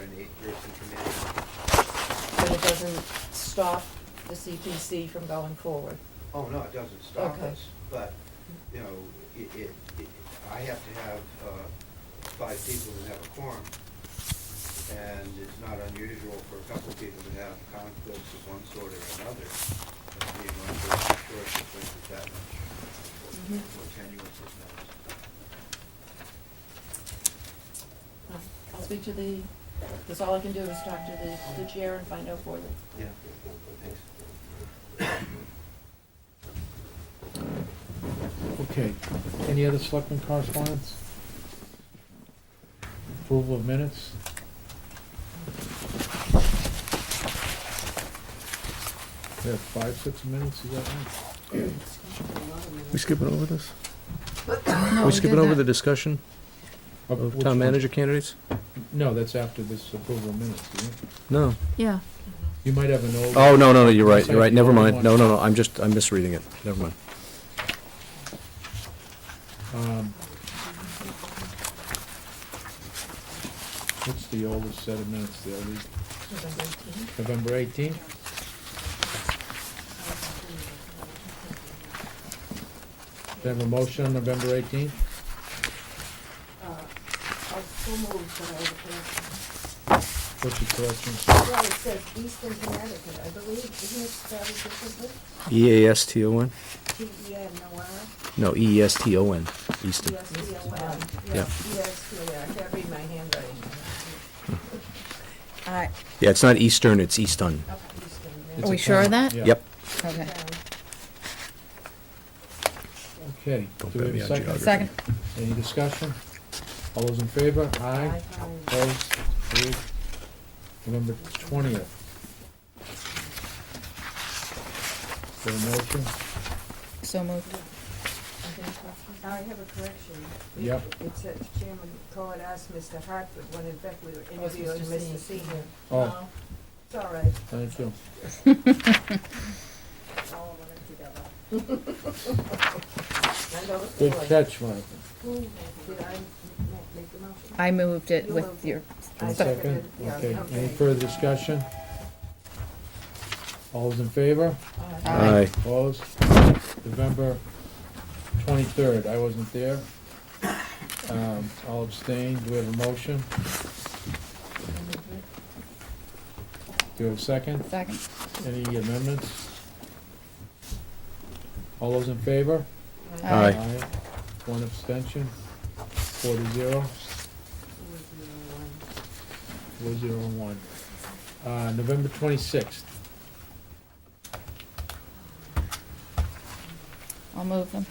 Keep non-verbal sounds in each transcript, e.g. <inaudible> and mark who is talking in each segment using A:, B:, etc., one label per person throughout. A: the eighth person committee.
B: But it doesn't stop the CPC from going forward.
A: Oh, no, it doesn't stop
B: Okay.
A: us, but, you know, it, it, it- I have to have, uh, five people that have a quorum. And it's not unusual for a couple of people to have conflicts of one sort or another. but Being one person short, it brings it that much
B: Mhm.
A: more tenuous as matters.
B: Uh, I'll speak to the, because all I can do is talk to the, the chair and find out for you.
A: Yeah, thanks.
C: Okay, any other selectmen correspondence? Approval of minutes? We have five, six minutes, is that right?
D: We skipping over this?
E: No,
D: We
E: Oh, we
D: skipping
E: did
D: over
E: that.
D: the discussion
C: Of
D: of
C: Oh, which one?
D: town manager candidates?
C: No, that's after this approval of minutes, do you?
D: No.
E: Yeah,
C: You might have an old.
D: Oh, no, no, no, you're right, you're right, never
C: Sorry,
D: mind. No, no, no, I'm just, I'm misreading it, never mind.
C: Um, What's the oldest set of minutes there? The
B: November 18th.
C: November eighteenth? Do I have a motion on November eighteenth?
F: I still move that I would have,
C: What's the correction?
F: well, it says Eastern Connecticut, I believe, isn't it spelled differently?
D: E E-A-S-T-O-N?
F: T E N O R,
D: No, E E-E-S-T-O-N, Easton.
F: E S T O N.
D: Yeah.
F: E S T O
B: I
F: N.
B: can't read my handwriting.
F: All right,
D: Yeah, it's not Eastern, it's Easton.
F: up Eastern,
C: It's
E: are
C: a
E: we sure of
C: comment,
E: that?
C: yeah.
D: Yep,
E: Okay.
C: Okay,
D: Don't
C: do we
D: bet
C: have
D: me
C: a
D: on
C: second?
D: geography.
E: Second,
C: Any discussion? All those in favor? Aye. Opposed? Carried. November twentieth. For a motion?
E: so moved. <laughs>
F: Now, I have a correction.
C: Yep.
F: It says Chairman Cohen asked Mr. Hartford when in fact we were
B: Oh, it's
F: interviewing
B: Mr.
F: Mr.
B: Senior.
F: Senior.
C: Oh,
F: It's all right,
C: thank you.
F: all of them together. <laughs>
B: I know the
C: Good
B: feeling.
C: catch, Mike.
F: Who did I m- make the motion?
E: I moved it
F: You
E: with
F: moved
E: your,
C: One
F: I
C: second.
F: seconded, yeah,
C: Okay, any
F: okay.
C: further discussion? All those in favor?
B: Uh,
E: Aye.
D: aye.
C: Opposed? November twenty-third, I wasn't there. Um, all abstained, do we have a motion? Do we have a second?
E: second,
C: Any amendments? All those in favor?
E: Aye.
D: Aye.
C: One abstention, four to zero, four zero and one. Uh, November twenty-sixth,
E: I'll move them.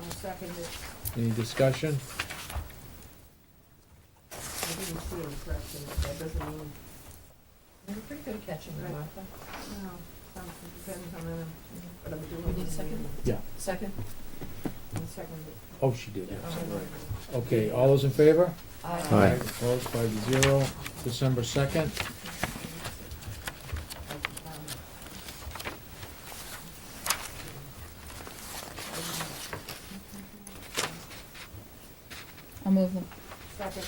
F: I'll second it.
C: any discussion?
F: I didn't see any correction, but that doesn't mean,
B: You're pretty good at catching it, Martha.
F: no, something depends on uh, what I'm doing.
B: We need a second?
C: Yeah.
B: Second?
F: I'll second it.
C: Oh, she did, yes,
B: Yeah.
C: right. Okay, all those in favor?
D: Aye.
C: Opposed, five to zero. December second,
E: I'll move them.
F: Second.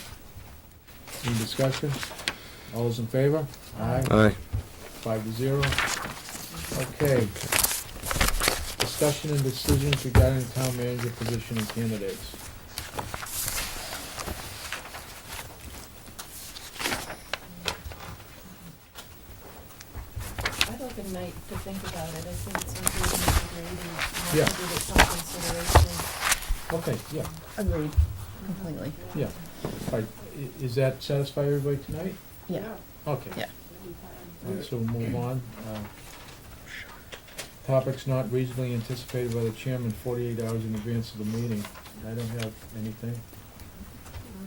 C: any discussion? All those in favor? Aye.
D: Aye.
C: Five to zero. Okay. Discussion and decisions regarding town manager position and candidates.
B: I'd like a night to think about it. I think it's something we need to read and have to
C: Yeah.
B: give it some consideration.
C: Okay, yeah,
E: Agreed. Completely,
C: yeah. All right, i- is that satisfy everybody tonight?
E: yeah.
C: Okay.
E: Yeah.
C: All right, so we'll move on. Uh, Topics not reasonably anticipated by the chairman forty-eight hours in advance of the meeting. I don't have anything.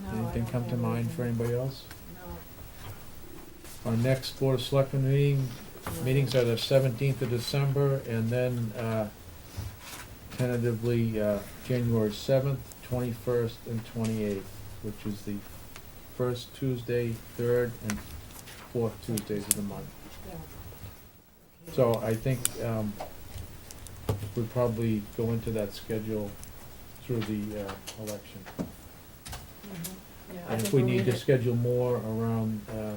F: No, I
C: Anything
F: don't
C: come to
F: have
C: mind
F: anything.
C: for anybody else?
F: No.
C: Our next Board of Selectmen meeting, meetings are the seventeenth of December, and then, uh, tentatively, uh, January seventh, twenty-first, and twenty-eighth, which is the first Tuesday, third, and fourth Tuesdays of the month.
F: Yeah. Okay.
C: So I think, um, we'd probably go into that schedule through the, uh, election.
F: Mhm.
B: Yeah, I
C: And if
B: think
C: we
B: we'll
C: need
B: read
C: to
B: it.
C: schedule more around, uh,